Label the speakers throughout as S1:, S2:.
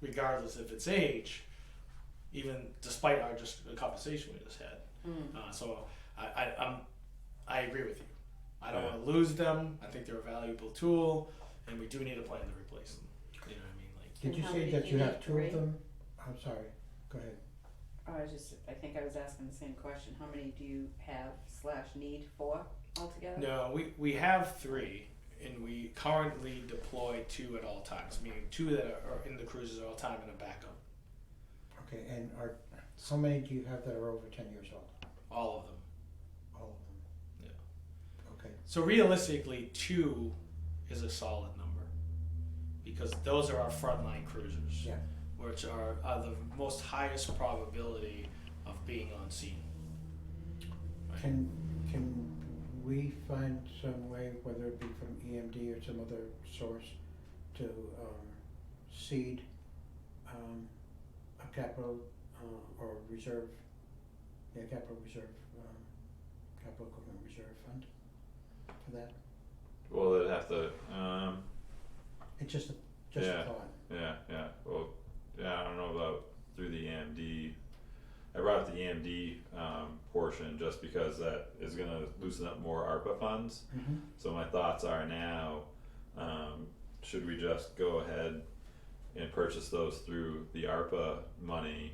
S1: regardless of its age, even despite our just the conversation we just had.
S2: Mm.
S1: Uh, so I, I I'm I agree with you. I don't
S3: Yeah.
S1: want to lose them. I think they're a valuable tool, and we do need a plan to replace them. You know what I mean? Like
S4: And
S5: Did you
S4: how
S5: say
S4: many
S5: that
S4: you
S5: you
S4: need?
S5: have two
S4: Three?
S5: of them? I'm sorry, go ahead.
S4: Oh, I was just, I think I was asking the same question, how many do you have slash need for altogether?
S1: No, we, we have three, and we currently deploy two at all times, meaning two that are in the cruisers at all time and a backup.
S5: Okay, and are, how many do you have that are over ten years old?
S1: All of them.
S5: All of them? Okay,
S1: So realistically, two is a solid number because those are our frontline cruisers,
S5: Yeah.
S1: which are, are the most highest probability of being on scene.
S5: can, can we find some way, whether it be from EMD or some other source, to um seed um a capital uh or reserve, yeah, capital reserve, um capital equipment reserve fund for that?
S3: Well, they'd have to. Um,
S5: It's just a, just a
S3: Yeah.
S5: thought,
S3: yeah, yeah. Well, yeah. I don't know about through the EMD. I brought up the EMD um, portion just because that is going to loosen up more ARPA funds.
S5: mm-hmm.
S3: So my thoughts are now, um, should we just go ahead and purchase those through the ARPA money?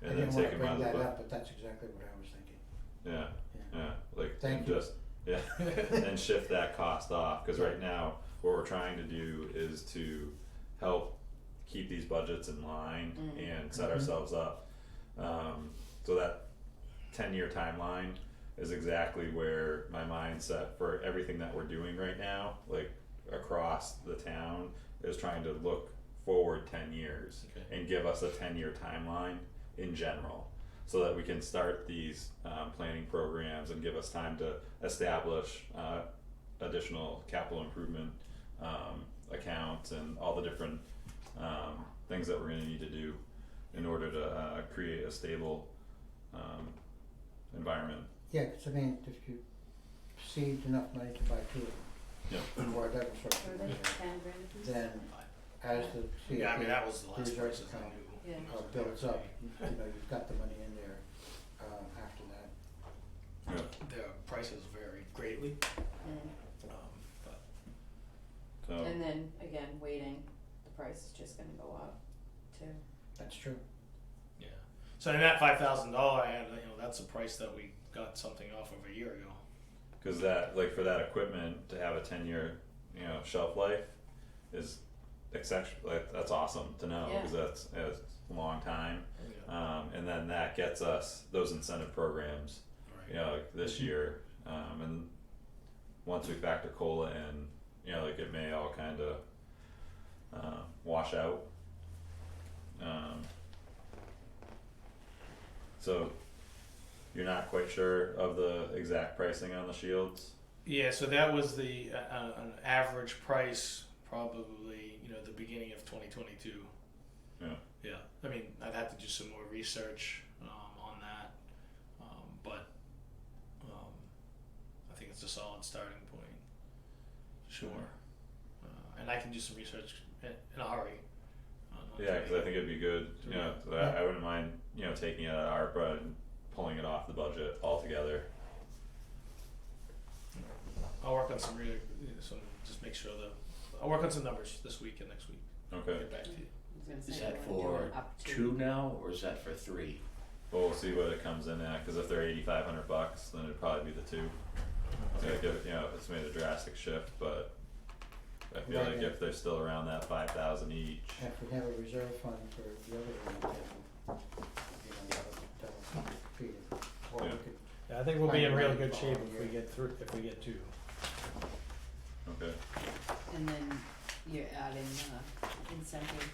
S5: I
S3: And then
S5: didn't
S3: take
S5: wanna
S3: them out
S5: bring
S3: of the
S5: that
S3: bu-
S5: up, but that's exactly what I was thinking,
S3: yeah,
S5: yeah.
S3: yeah, like
S5: Thank
S3: and
S5: you.
S3: just, yeah, and shift that cost off, cause
S5: Yeah.
S3: right now, what we're trying to do is to help keep these budgets in line
S4: Mm.
S3: and set
S5: Mhm.
S3: ourselves up. Um, so that ten-year timeline is exactly where my mindset for everything that we're doing right now, like across the town, is trying to look forward ten years
S1: Okay.
S3: and give us a ten-year timeline in general so that we can start these um, planning programs and give us time to establish uh, additional capital improvement um, accounts and all the different um, things that we're going to need to do in order to uh, create a stable um, environment.
S5: Yeah, 'cause I mean, if you saved enough money to buy two of them.
S3: Yeah.
S5: And whatever sort
S4: Or
S5: of
S4: the
S5: reserve,
S4: ten grand a piece?
S5: then as the CIP
S1: Yeah, I mean that was the last
S5: Cruiser
S1: person I
S5: account,
S1: knew.
S4: Yeah.
S5: uh, builds up, you you know, you've got the money in there, uh, after that.
S1: Their prices vary greatly,
S4: Mm.
S1: um, but
S3: So,
S4: And then, again, waiting, the price is just gonna go up too.
S5: That's true.
S1: yeah. So in that five thousand dollar ad, you know, that's the price that we got something off of a year ago.
S3: because that, like for that equipment to have a 10 year, you know, shelf life is exceptional. Like, that's awesome to know because that's, that's a long time.
S1: Yeah.
S3: Um, and then that gets us those incentive programs,
S1: Right.
S3: you know, like this year. Um, and once we factor cola in, you know, like it may all kind of uh, wash out. Um, so you're not quite sure of the exact pricing on the shields.
S1: Yeah, so that was the uh, uh, an average price, probably you know the beginning of 2022.
S3: Yeah.
S1: Yeah. I mean, I'd have to do some more research um, on that, um, but um, I think it's a solid starting point. Sure. Uh, and I can do some research in, in a hurry. Um, on- on
S3: Yeah,
S1: that.
S3: because I think it'd be good. You know, I, I wouldn't mind you know taking it out of ARPA and pulling it off the budget altogether.
S1: I'll work on some really some just make sure that I'll work on some numbers this week and next week.
S3: Okay.
S1: Get back to you.
S4: I was gonna
S2: Is
S4: say,
S2: that
S4: you wanna do an
S2: for
S4: up to.
S2: two now, or is that for three?
S3: Well, we'll see what it comes in at, cause if they're eighty-five hundred bucks, then it'd probably be the two. It's like, if, you know, if it's made a drastic shift, but I feel
S5: Right,
S3: like
S5: yeah.
S3: if they're still around that five thousand each,
S5: And If we have a reserve fund for the other one, then, you know, that'll, that'll feed it. Or we
S3: Yeah.
S5: could-
S6: Yeah, I think we'll be in
S5: Find
S6: real
S5: money
S6: good
S5: for
S6: shape
S5: all
S6: if we
S5: year.
S6: get through, if we get two.
S3: okay,
S4: And then you're adding uh incentive,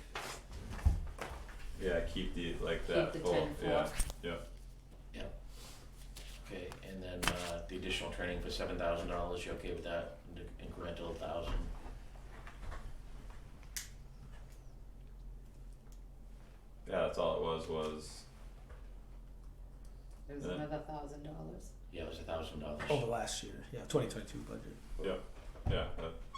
S3: yeah, keep the, like
S4: keep
S3: that
S4: the
S3: full,
S4: ten
S3: yeah,
S4: four,
S3: yeah,
S2: Okay, and then, uh, the additional training for seven thousand dollars, you okay with that, The incremental thousand?
S3: yeah, that's all it was, was,
S4: it was
S3: Yeah.
S4: another thousand dollars.
S1: Oh.
S2: Yeah, it was a thousand dollars.
S6: Over last year, yeah, twenty twenty-two budget.
S3: yeah, that,
S2: Um,